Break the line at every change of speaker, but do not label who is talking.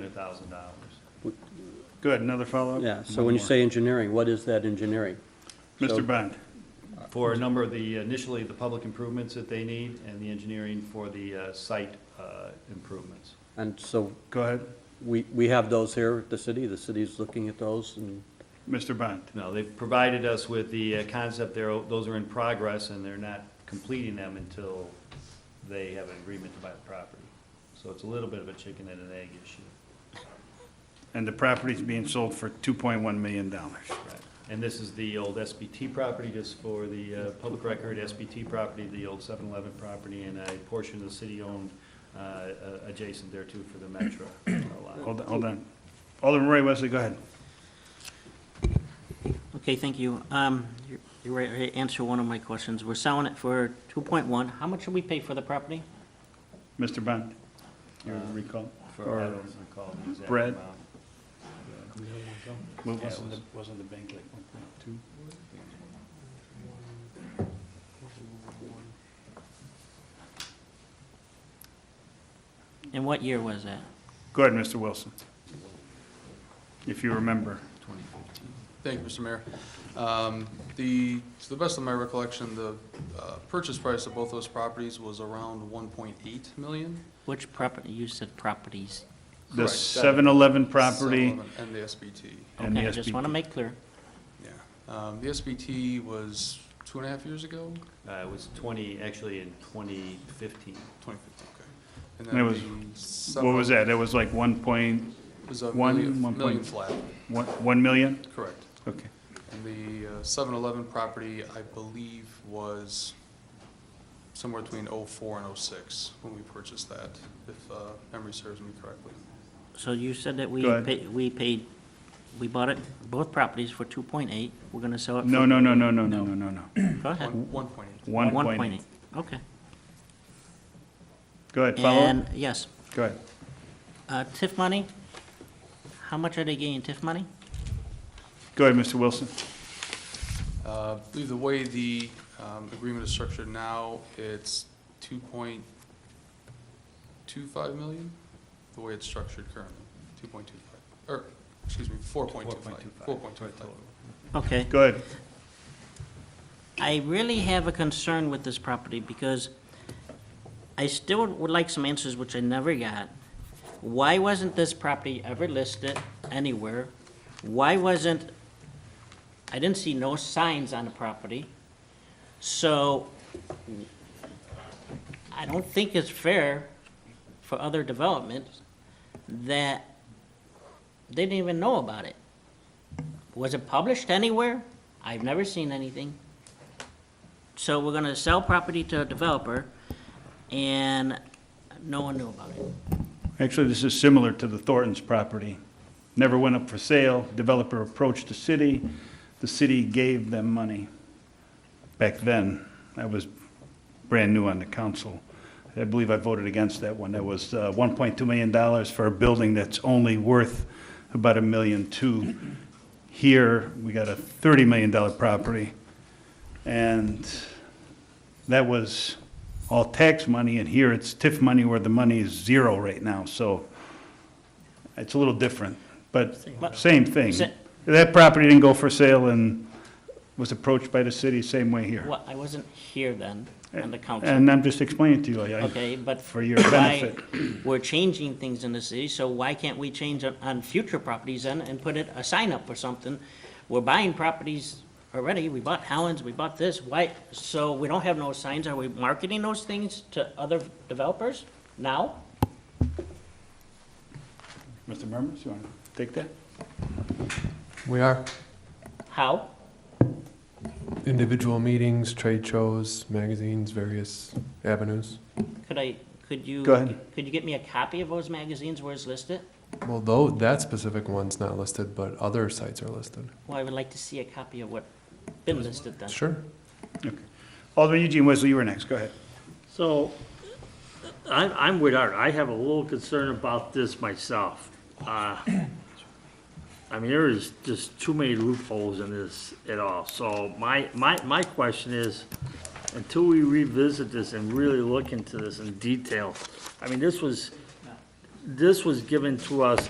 hundred thousand dollars. Go ahead, another follow-up?
Yeah, so
One
when you
more.
say engineering, what is that engineering? so-
Mr. Bond,
for a number of the, initially, the public improvements that they need, and the engineering for the uh, site uh, improvements.
And so
go ahead.
we, we have those here at the city, the city's looking at those and,
Mr. Bond,
No, they've provided us with the uh, concept, there, those are in progress, and they're not completing them until they have an agreement to buy the property. So it's a little bit of a chicken and an egg issue.
and the property's being sold for two point one million dollars.
Right. And this is the old SBT property, just for the uh, public record, SBT property, the old 7-Eleven property, and a portion of the city-owned uh, uh, adjacent there too for the Metro uh, lot.
Hold on, hold on. Alderman Roy Wesley, go ahead.
Okay, thank you. Um, you- You already answered one of my questions. We're selling it for 2.1. How much should we pay for the property?
Mr. Bond, you recall?
For, I don't recall the exact
Brett?
amount.
What was
Wasn't
it? Wasn't the bank like one point two?
And what year was that?
Go ahead, Mr. Wilson. If you remember.
Thank you, Mr. Mayor. Um, The, to the best of my recollection, the uh, purchase price of both those properties was around 1.8 million.
Which property, you said properties.
The
Correct.
7-Eleven property
Some of them- um, And the SBT,
and the
Okay, I just want to
SBP.
make clear.
yeah. Um, The SBT was two and a half years ago,
Uh, It was 20, actually in 2015.
2015, okay.
And it was- What was that? That was like one point,
It was a
One-
million,
one
million
point-
flat,
one, one million?
correct.
Okay.
And the uh, 7-Eleven property, I believe, was somewhere between '04 and '06 when we purchased that, if uh, memory serves me correctly.
So you said that we
Go ahead.
paid, we paid, we bought it, both properties for 2.8. We're going to sell it for...
No, no, no, no, no, no, no, no, no.
Go ahead.
One- 1.8.
One point eight.
Okay.
Go ahead, follow up.
And, yes,
Go ahead.
Uh, TIF money, how much are they getting TIF money?
Go ahead, Mr. Wilson.
Uh, I believe the way the um, agreement is structured now, it's 2.25 million, the way it's structured currently, 2.25, or, excuse me, 4.25.
4.25.
4.25.
Okay.
Go ahead.
I really have a concern with this property because I still would like some answers, which I never got. Why wasn't this property ever listed anywhere? Why wasn't, I didn't see no signs on the property. So I don't think it's fair for other developments that they didn't even know about it. Was it published anywhere? I've never seen anything. So we're gonna sell property to a developer, and no one knew about it.
Actually, this is similar to the Thornton's property. Never went up for sale. Developer approached the city. The city gave them money. Back then, I was brand new on the council. I believe I voted against that one. That was uh, $1.2 million for a building that's only worth about a million two. Here, we got a $30 million property. And that was all tax money, and here it's TIF money where the money is zero right now, so it's a little different, but same thing.
Sa-
That property didn't go for sale and was approached by the city same way here.
Well, I wasn't here then, on the council,
And I'm just explaining to you, I- I,
okay, but.
for your
why-
benefit.
We're changing things in the city, so why can't we change on, on future properties then and put it, a sign up or something? We're buying properties already, we bought Howland's, we bought this, why, so we don't have no signs, are we marketing those things to other developers now?
Mr. Murmas, you want to take that?
We are.
How?
Individual meetings, trade shows, magazines, various avenues.
Could I, could you?
Go ahead.
Could you get me a copy of those magazines where it's listed?
Well, though, that specific one's not listed, but other sites are listed.
Well, I would like to see a copy of what been listed then.
Sure.
Okay. Alderman Eugene Wesley, you were next, go ahead.
So, I'm, I'm with Art, I have a little concern about this myself. Uh, I mean, there is just too many loopholes in this at all, so my, my, my question is, until we revisit this and really look into this in detail, I mean, this was, this was given to us